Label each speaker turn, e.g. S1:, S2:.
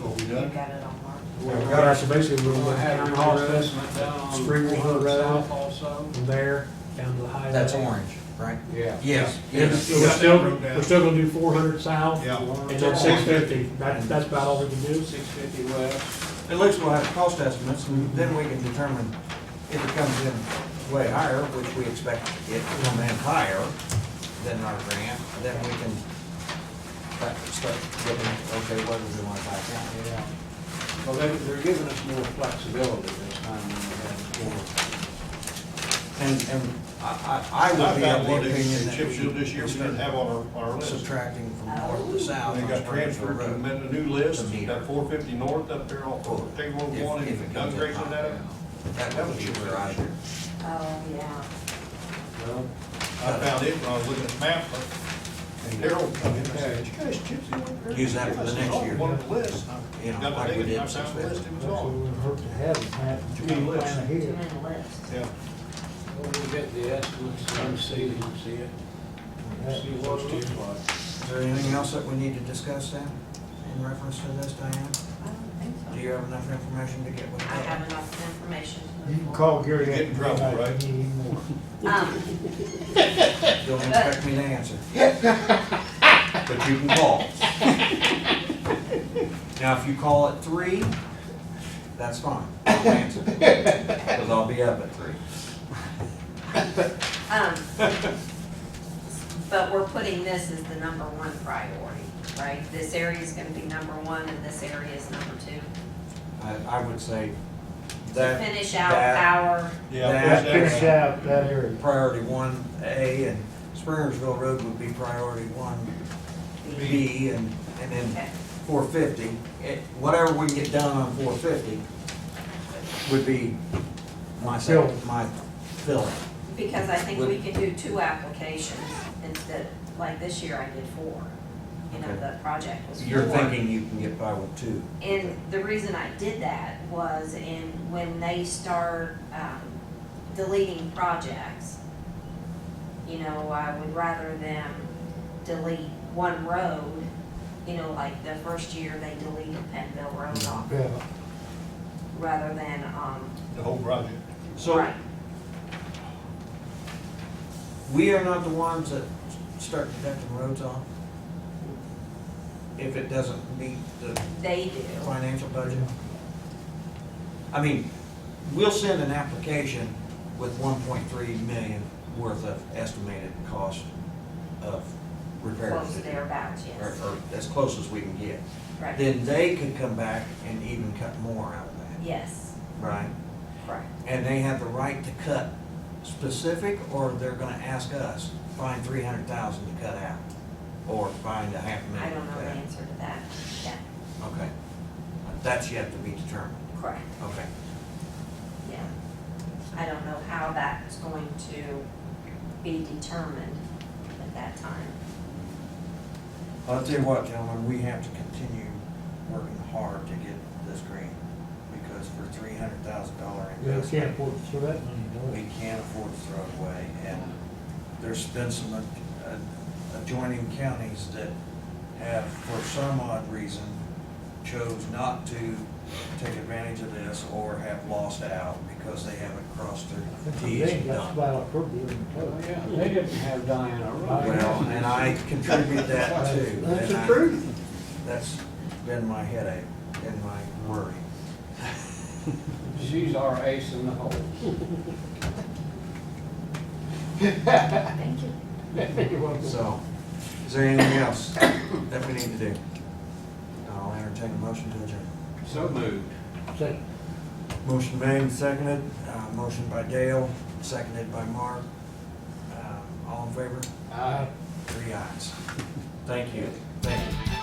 S1: You
S2: done?
S1: got it on Mark?
S3: We've got our submission
S4: We're
S3: room,
S4: gonna
S3: but
S4: have
S3: county
S4: your
S3: hospital,
S4: investment down on
S3: Springwater Road.
S4: South also.
S3: from there down to the highway.
S5: That's orange, right?
S2: Yeah.
S5: Yes.
S3: And
S5: Yes.
S3: so We're still, we're still gonna do four hundred south
S2: Yeah.
S3: and then six fifty. That's, that's about all we can do.
S4: Six fifty west.
S5: At least we'll have cost estimates, and then we can determine if it comes in way higher, which we expect it to come in higher than our grant, then we can start start giving, okay, what do we want to buy down?
S4: Yeah. Well, they, they're giving us more flexibility this time than we had before.
S5: And, and I, I I
S2: I've
S5: would be
S2: got
S5: of
S2: one
S5: the
S2: in
S5: opinion that
S2: Chip Seal this year, we
S5: we
S2: didn't
S5: start
S2: have on our, our list.
S5: subtracting from north to south.
S2: They
S5: on
S2: got
S5: Springfield
S2: transferred to
S5: Road.
S2: amend a new list, that four fifty north up there off of K one
S5: If-
S2: one
S5: if it
S2: and Doug
S5: comes in
S2: Grayson
S5: higher.
S2: that.
S5: That would be where I,
S1: Oh, yeah.
S4: Well,
S2: I found it when I was looking at the map, and Daryl come in and said, "Did you guys Chip Seal up there?"
S5: Use that for the next year.
S2: One of the lists.
S5: you know,
S2: Got
S5: like
S2: the
S5: we
S2: date,
S5: did
S2: and I
S5: six
S2: found the list,
S5: fifty.
S2: it was on.
S6: hope to have it, Matt,
S2: Too many lists.
S1: Too many lists.
S2: Yeah.
S4: we'll get the estimates and see, and see it, see what it looks like.
S5: Is there anything else that we need to discuss then, in reference to this, Diane?
S1: I don't think
S5: Do
S1: so.
S5: you have enough information to get with
S1: I
S5: that?
S1: have enough information. to
S6: You
S1: move
S6: can
S1: forward.
S6: call Gary.
S2: You get in trouble,
S6: after midnight
S2: right?
S6: if you need any more.
S1: Um,
S5: Don't expect me to answer. But you can call. Now, if you call at three, that's fine, I'll answer, because I'll be up at three.
S1: um, But we're putting this as the number one priority, right? This area is gonna be number one and this area is number two.
S5: I, I would say
S1: To
S5: that.
S1: finish out
S5: that-
S1: our,
S2: Yeah,
S5: That-
S2: there's
S6: Finish
S2: that.
S6: out that area.
S5: Priority one A, and Springersville Road would be priority one B, and, and then
S1: okay,
S5: four fifty. Eh, Whatever we get done on four fifty would be my, sec- my fill.
S1: because I think we can do two applications instead, like this year I did four. You know, the project was 4
S5: You're thinking you can get by with two.
S1: And the reason I did that was in, when they start, um, deleting projects, you know, I would rather them delete one road, you know, like the first year they deleted Penville Road
S5: Mm-hmm.
S1: off,
S6: Yeah.
S1: rather than, um,
S2: The whole project.
S5: So
S1: right,
S5: we are not the ones that start deducting roads off if it doesn't meet the
S1: they do.
S5: financial budget? I mean, we'll send an application with one point three million worth of estimated cost of repairs.
S1: Close thereabouts,
S5: Or,
S1: yes,
S5: or as close as we can get.
S1: right,
S5: Then they could come back and even cut more out of that,
S1: yes,
S5: right?
S1: correct.
S5: and they have the right to cut specific, or they're gonna ask us, find three hundred thousand to cut out, or find a half
S1: I
S5: million.
S1: don't
S5: to
S1: know
S5: cut
S1: the
S5: out.
S1: answer to that, yeah,
S5: Okay. That's yet to be determined,
S1: correct.
S5: okay.
S1: Yeah. I don't know how that's going to be determined at that time.
S5: I'll tell you what, gentlemen, we have to continue working hard to get this green, because for three hundred thousand dollar
S6: Yeah,
S5: investment.
S6: we can't afford to throw that money, no.
S5: we can't afford to throw it away. And there's been some ad- ad- adjoining counties that have, for some odd reason, chose not to take advantage of this or have lost out because they haven't crossed their
S6: That's the
S5: Ts
S6: thing,
S5: and
S6: that's
S5: dotted.
S6: about our program.
S4: Oh, yeah, they didn't have Diana Ross.
S5: Well, and I contribute that too.
S6: That's
S5: and
S6: the
S5: I-
S6: truth.
S5: That's been my headache and my worry.
S4: She's our ace in the hole.
S1: Thank you.
S5: So, is there anything else that we need to do? I'll entertain a motion to adjourn.
S4: So moved.
S6: Second.
S5: Motion made and seconded, uh, motion by Dale, seconded by Mark. Uh, All in favor?
S4: Aye.
S5: Three ayes. Thank you. Thank you.